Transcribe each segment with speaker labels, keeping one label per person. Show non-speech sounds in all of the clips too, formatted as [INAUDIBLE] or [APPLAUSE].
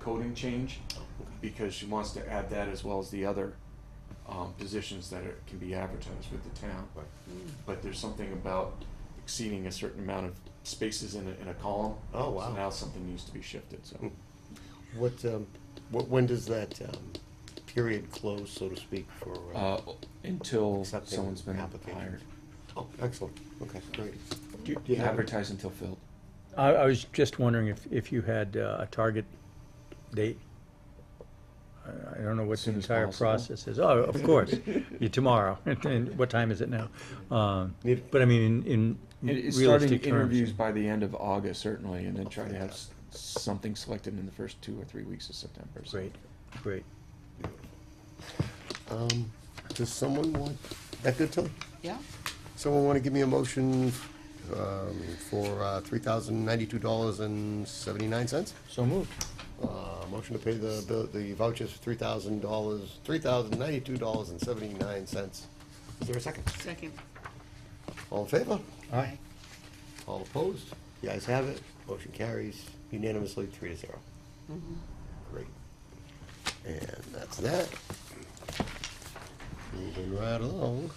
Speaker 1: coding change because she wants to add that as well as the other um, positions that are, can be advertised with the town.
Speaker 2: Right.
Speaker 1: But there's something about exceeding a certain amount of spaces in a, in a column.
Speaker 2: Oh, wow.
Speaker 1: So now something needs to be shifted, so.
Speaker 2: What, um, what, when does that, um, period close, so to speak, for, uh,
Speaker 1: Uh, until
Speaker 2: Accepting
Speaker 1: someone's been
Speaker 2: applications.
Speaker 1: hired.
Speaker 2: oh, excellent, okay, great.
Speaker 1: Do
Speaker 2: Do
Speaker 1: you
Speaker 2: you have-
Speaker 1: advertise until filled?
Speaker 3: I, I was just wondering if, if you had uh, a target date? I, I don't know what
Speaker 1: As
Speaker 3: the
Speaker 1: soon as
Speaker 3: entire
Speaker 1: possible.
Speaker 3: process is. Oh, of
Speaker 1: [LAUGHS]
Speaker 3: course, You- tomorrow. [LAUGHS] And- And what time is it now? Um, But I mean, in, in
Speaker 1: It- It's starting
Speaker 3: Mm, realistic terms.
Speaker 1: interviews by the end of August certainly, and then try to have s- something selected in the first two or three weeks of September. so.
Speaker 3: Great, great.
Speaker 2: Um, does someone want, that good, Tilly?
Speaker 4: Yeah,
Speaker 2: Someone wanna give me a motion, um, for, uh, three thousand ninety-two dollars and seventy-nine cents?
Speaker 3: So moved.
Speaker 2: Uh, motion to pay the, bill- the vouchers for three thousand dollars, three thousand ninety-two dollars and seventy-nine cents. Is there a second?
Speaker 4: second.
Speaker 2: All in favor?
Speaker 3: Aye.
Speaker 2: All opposed? The ayes have it. Motion carries unanimously, three to zero. Great. And that's that. Moving right along.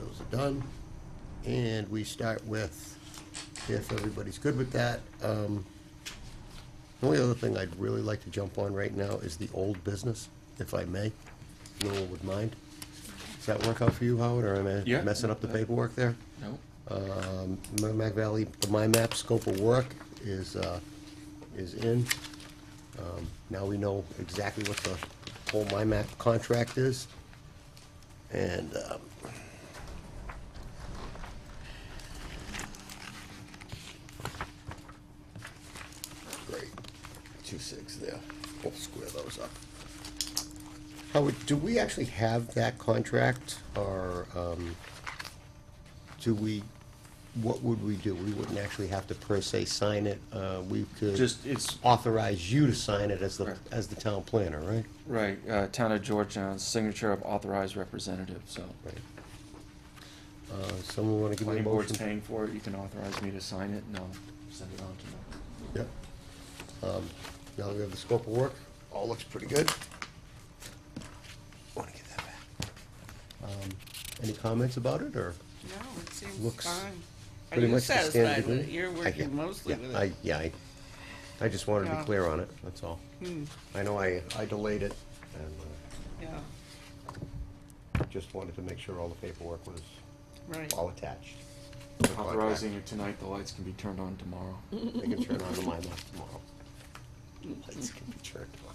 Speaker 2: Those are done. And we start with, if everybody's good with that, um, the only other thing I'd really like to jump on right now is the old business, if I may. No one would mind. Does that work out for you, Howard, or am
Speaker 1: Yeah.
Speaker 2: I messing up the paperwork there?
Speaker 1: No?
Speaker 2: Um, Merrimack Valley, the MyMap scope of work is, uh, is in. Um, Now we know exactly what the whole MyMap contract is. And, um, great, two six there, we'll square those up. Howard, do we actually have that contract, or, um, do we, what would we do? We wouldn't actually have to per se sign it, uh, we could.
Speaker 1: Just, it's
Speaker 2: authorize you to sign it as the,
Speaker 1: Right.
Speaker 2: as the town planner, right?
Speaker 1: Right, uh, Town of Georgetown, signature of authorized representative, so.
Speaker 2: Right. Uh, Someone want to give me a
Speaker 1: Planning board's
Speaker 2: motion?
Speaker 1: paying for it, you can authorize me to sign it, and I'll send it on to them.
Speaker 2: Yep. Um, Now that we have the scope of work, all looks pretty good. Want to get that back. Um, Any comments about it, or?
Speaker 4: No, it seems
Speaker 2: Looks
Speaker 4: fine. Are
Speaker 2: pretty
Speaker 4: you
Speaker 2: much the standard
Speaker 4: satisfied with it?
Speaker 2: agreement?
Speaker 4: You're
Speaker 2: I-
Speaker 4: working mostly
Speaker 2: yeah,
Speaker 4: with
Speaker 2: I,
Speaker 4: it.
Speaker 2: yeah, I, I just wanted to be
Speaker 4: Yeah.
Speaker 2: clear on it, that's all.
Speaker 4: Hmm,
Speaker 2: I know I, I delayed it, and
Speaker 4: yeah,
Speaker 2: uh, just wanted to make sure all the paperwork was
Speaker 4: right.
Speaker 2: all attached.
Speaker 1: Authorizing it tonight, the lights can be turned on tomorrow.
Speaker 2: They can turn on the mine light tomorrow. Lights can be turned on.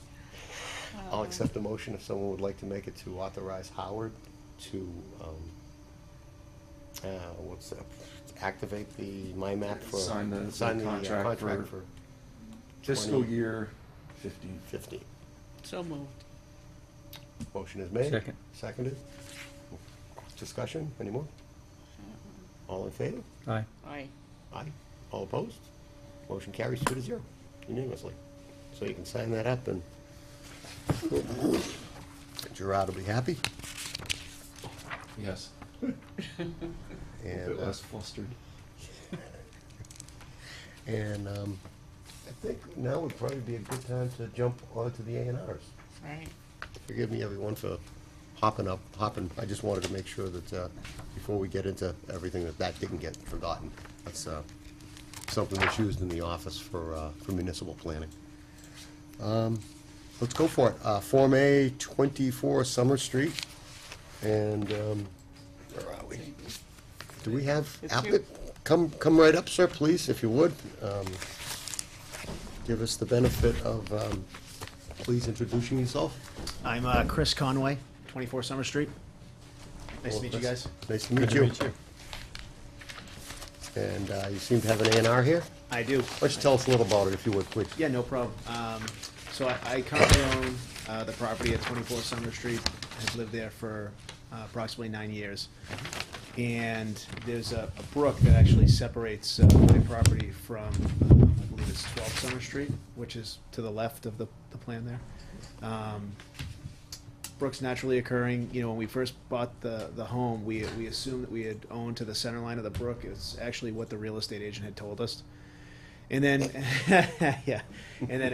Speaker 2: I'll accept the motion if someone would like to make it to authorize Howard to, um, uh, what's that? Activate the MyMap for.
Speaker 1: Sign the- the
Speaker 2: sign uh,
Speaker 1: contract
Speaker 2: contract
Speaker 1: for-
Speaker 2: for
Speaker 1: Fiscal
Speaker 2: 20.
Speaker 1: year fifteen.
Speaker 2: fifteen.
Speaker 4: So moved.
Speaker 2: Motion is made.
Speaker 3: Second.
Speaker 2: Seconded. Discussion, any more? All in favor?
Speaker 3: Aye.
Speaker 4: Aye.
Speaker 2: Aye. All opposed? Motion carries two to zero unanimously. So you can sign that up and Gerard will be happy.
Speaker 1: Yes.
Speaker 2: And,
Speaker 1: Bit
Speaker 2: uh,
Speaker 1: less flustered.
Speaker 2: and um, I think now would probably be a good time to jump onto the A and Rs.
Speaker 4: Right.
Speaker 2: Forgive me, everyone, for hopping up, hopping. I just wanted to make sure that, uh, before we get into everything, that that didn't get forgotten. That's, uh, something that's used in the office for, uh, for municipal planning. Um, let's go for it. Uh, Form A, twenty-four Summer Street, and, um, where are we? Do we have
Speaker 4: It's
Speaker 2: applicant?
Speaker 4: you.
Speaker 2: Come, come right up, sir, please, if you would. Um, Give us the benefit of, um, please introducing yourself.
Speaker 5: I'm uh, Chris Conway, 24 Summer Street. Nice to
Speaker 2: Hello,
Speaker 5: meet you
Speaker 2: Chris.
Speaker 5: guys.
Speaker 2: Nice to meet you. And uh, you seem to have an A and R here.
Speaker 5: I do.
Speaker 2: Why don't you tell us a little about it, if you would, please?
Speaker 5: Yeah, no problem. Um, so I, I currently own uh, the property at 24 Summer Street. I've lived there for uh, approximately nine years. And there's a, a brook that actually separates uh, my property from, um, I believe it's 12 Summer Street, which is to the left of the, the plan there. Um, Brooks naturally occurring. You know, when we first bought the, the home, we, we assumed that we had owned to the center line of the brook. It's actually what the real estate agent had told us. And then, [LAUGHS] yeah, and then